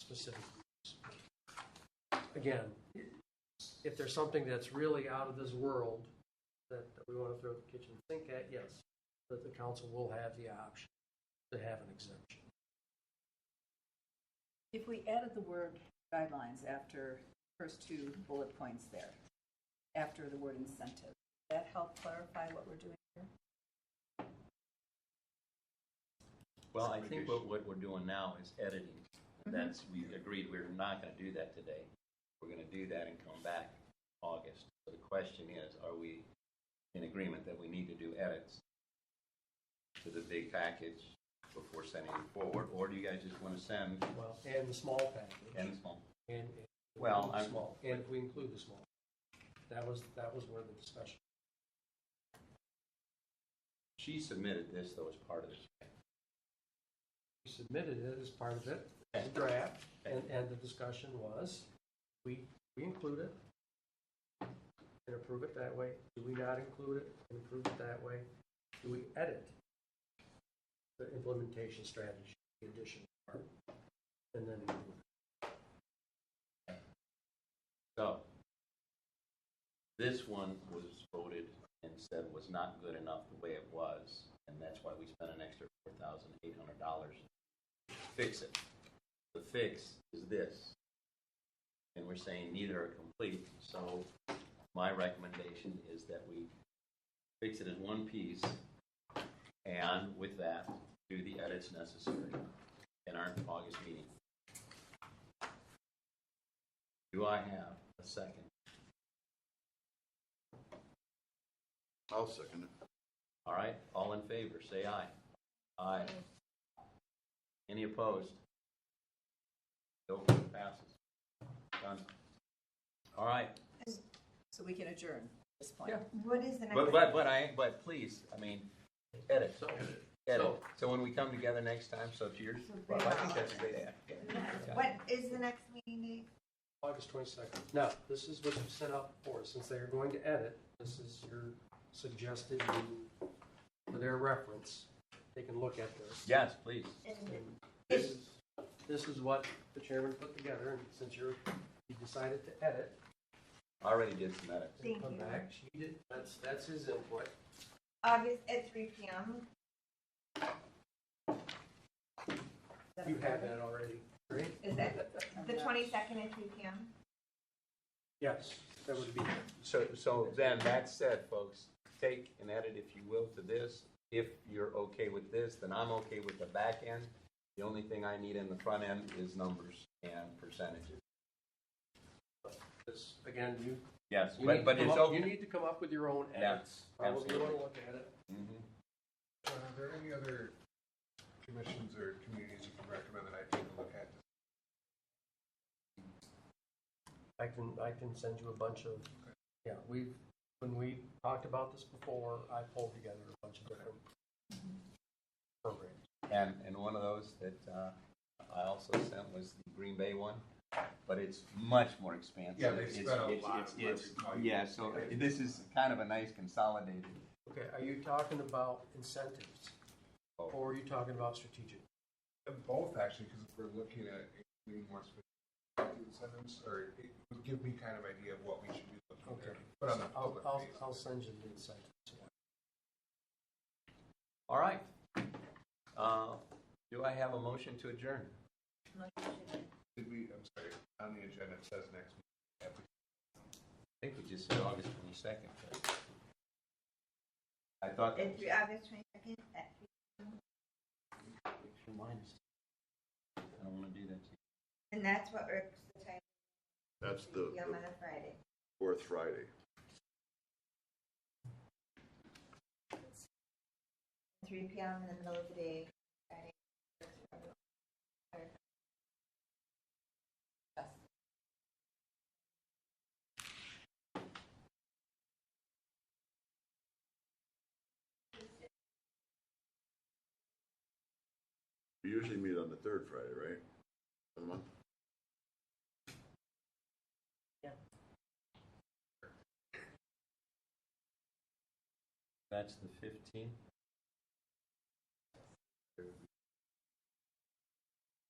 specific. use. Again, if there's something that's really out of this world that, that we want to throw the kitchen sink at, yes, that the council will have the option to have an exemption. If we added the word guidelines after first two bullet points there, after the word incentive, would that help clarify what we're doing here? Well, I think what, what we're doing now is editing. That's, we agreed we're not going to do that today. We're going to do that and come back August. So the question is, are we in agreement that we need to do edits to the big package before sending it forward? Or do you guys just want to send Well, and the small package. and small? And, and Well, the I'm- small, and if we include the small, that was, that was where the discussion. She submitted this though as part of this. We submitted it as part of it, as a draft, and, and the discussion was, we, we include it and approve it that way. Do we not include it and approve it that way? Do we edit the implementation strategy, the addition part, and then include it? So this one was voted and said was not good enough the way it was, and that's why we spent an extra four thousand eight hundred dollars to fix it. The fix is this. And we're saying neither are complete, so my recommendation is that we fix it in one piece and with that, do the edits necessary in our August meeting. Do I have a second? I'll second it. All right, all in favor, say aye. Aye. Any opposed? No, it passes. Done. All right, So we can adjourn at this point. Yeah. What is the next? but, but, but I, but please, I mean, edit, so, edit. So- So when we come together next time, so to yours, well, I think that's a great idea. What is the next meeting date? August 22nd. Now, this is what you sent out before, since they are going to edit, this is your suggested, new- for their reference, they can look at this. Yes, please. And This is, this is what the chairman put together, and since you're, you decided to edit, I Already did some edits. Thank come you. back, she did, that's, that's his input. August at three P M. You have that already, right? Is that the twenty-second at three P M? Yes, that would be, So, so then, that said, folks, take and edit if you will to this. If you're okay with this, then I'm okay with the back end. The only thing I need in the front end is numbers and percentages. this, again, you. Yes, you need to but, but come it's up- You okay. need to come up with your own edits. Probably want absolutely. to look at it. Mhm. Are there any other commissions or communities you can recommend that I take a look at? I can, I can send you a bunch of, yeah, we've, when we talked about this before, I pulled together a bunch of different Mm-hmm. programs. And, and one of those that uh, I also sent was the Green Bay one, but it's much more expansive. Yeah, they've It's- spent a it's- lot it's- of it's- money. Yeah, so this is kind of a nice consolidated. Okay, are you talking about incentives? Oh. Or are you talking about strategic? And Both, actually, because if we're looking at including more specific incentives, or it would give me kind of idea of what we should be looking at. Okay. But on the I'll, public I'll, face. I'll send you the incentives. All right. Uh, Do I have a motion to adjourn? Did we, I'm sorry, on the agenda, it says next meeting. I think we just said August twenty-second. I thought that At was three, August twenty-second at three. remind us. I don't want to do that to you. And that's what works the time, That's three the P M on the a Friday. fourth Friday. Three P M in the middle of the day, Friday. works for everyone. We usually meet on the third Friday, right? Of the month? That's the fifteenth.